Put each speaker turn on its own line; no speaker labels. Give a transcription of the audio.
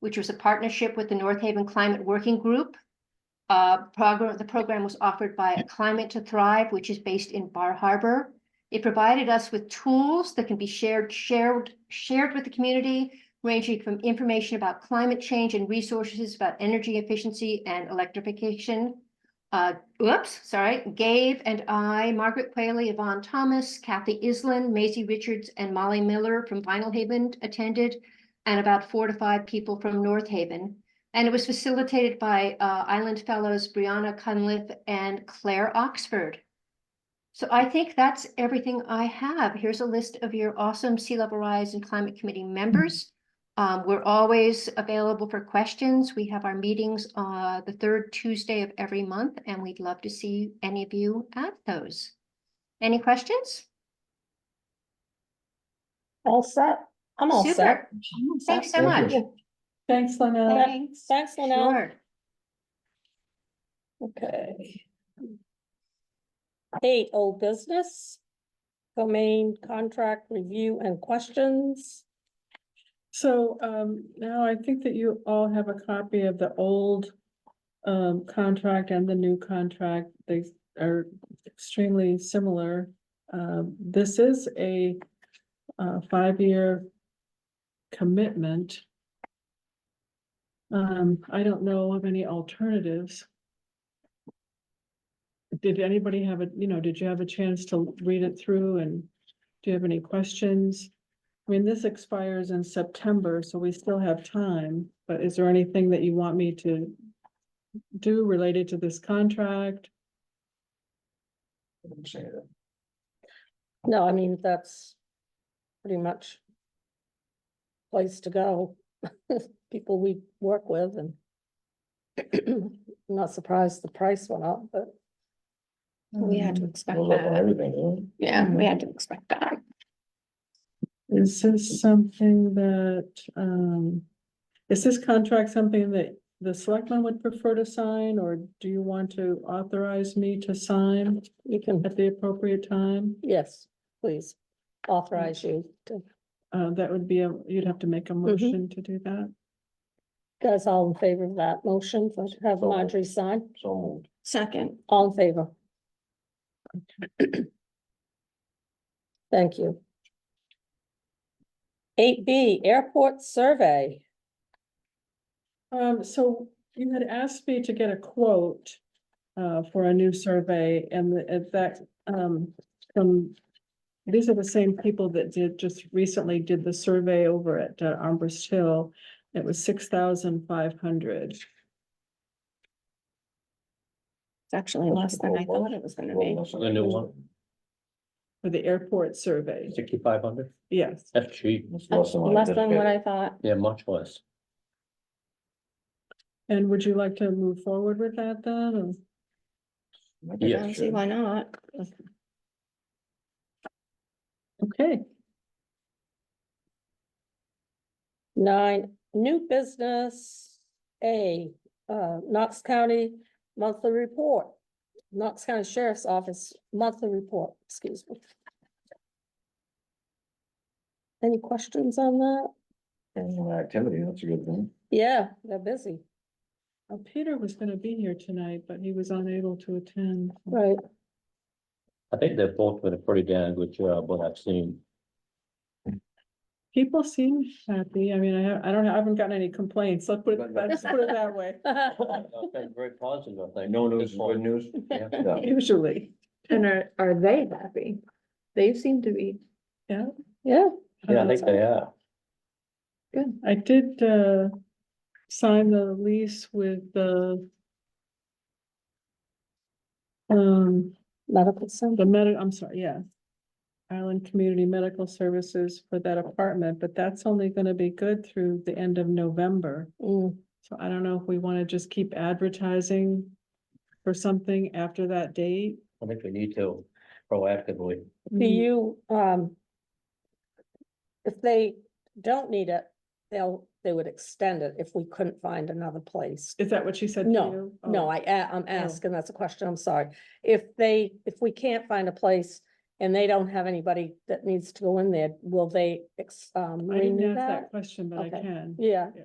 which was a partnership with the North Haven Climate Working Group. Uh, program, the program was offered by Climate to Thrive, which is based in Bar Harbor. It provided us with tools that can be shared, shared, shared with the community, ranging from information about climate change and resources about energy efficiency and electrification. Uh, whoops, sorry, Gabe and I, Margaret Quayle, Yvonne Thomas, Kathy Island, Maisie Richards, and Molly Miller from Vinyl Haven attended, and about four to five people from North Haven. And it was facilitated by uh, Island Fellows Brianna Cunliffe and Claire Oxford. So I think that's everything I have. Here's a list of your awesome Sea Level Rise and Climate Committee members. Um, we're always available for questions. We have our meetings, uh, the third Tuesday of every month, and we'd love to see any of you at those. Any questions?
All set. I'm all set.
Super. Thanks so
Thank
much.
you.
Thanks, Lynette.
Thanks.
Thanks, Lynell.
Sure.
Okay. Eight, old business. Domain contract review and questions.
So um now I think that you all have a copy of the old um contract and the new contract. They are extremely similar. Um this is a uh five-year commitment. Um I don't know of any alternatives. Did anybody have a, you know, did you have a chance to read it through and do you have any questions? I mean, this expires in September, so we still have time, but is there anything that you want me to do related to this contract?
No, I mean, that's pretty much place to go. People we work with and I'm not surprised the price went up, but
We had to expect
Goes up on
that.
everything, doesn't
Yeah, we had to expect that.
Is this something that, um, is this contract something that the selectmen would prefer to sign, or do you want to authorize me to sign
you can,
at the appropriate time?
yes, please authorize you to,
Uh, that would be, a you'd have to make a motion to do that.
guys all in favor of that motion, so have Marjorie sign,
it? So moved.
Second,
all in favor. Thank you. Eight B, airport survey.
Um, so you had asked me to get a quote uh, for a new survey and the- and that, um, from these are the same people that did, just recently did the survey over at uh, Armbrist Hill. It was six thousand five hundred.
it's actually less than I thought it was gonna be.
The new one,
It's
For the airport survey,
sixty-five hundred,
yes.
that's cheap,
Less than what I
Less
just
than
paid.
what I thought.
yeah, much less.
And would you like to move forward with that then? or-
I think
I
Yeah,
don't see
sure.
why not.
Okay,
Nine, new business, A, uh, Knox County monthly report. Knox County Sheriff's Office monthly report, excuse me. Any questions on that?
Any more Activity, that's a good thing.
Yeah, they're busy,
Uh, Peter was gonna be here tonight, but he was unable to attend.
right?
I think they're both did a pretty damn good job, what I've seen.
People seem happy. I mean, I, ha- I don't, I haven't gotten any complaints. Let's put it,
But- but-
let's put it that way,
I've been Very positive, I think.
No
at
news,
this
is
point.
good news.
Yeah.
Yeah.
usually.
And are, are they happy? They seem to be.
Yeah,
Yeah,
Yeah, I think they are.
Um, I did, uh, sign the lease with the um,
medical center,
the med, I'm sorry, yeah. Island Community Medical Services for that apartment, but that's only gonna be good through the end of November.
Mm,
So I don't know if we wanna just keep advertising for something after that date.
I think we need to proactively,
Mm-hmm.
do you, um. If they don't need it, they'll, they would extend it if we couldn't find another place.
Is that what she said to
No,
you? Oh.
No, I, a- I'm asking, that's a question, I'm sorry. If they, if we can't find a place and they don't have anybody that needs to go in there, will they ex, um,
I didn't
renew
ask that
that?
question, but I
Okay.
can.
Yeah,
Yeah.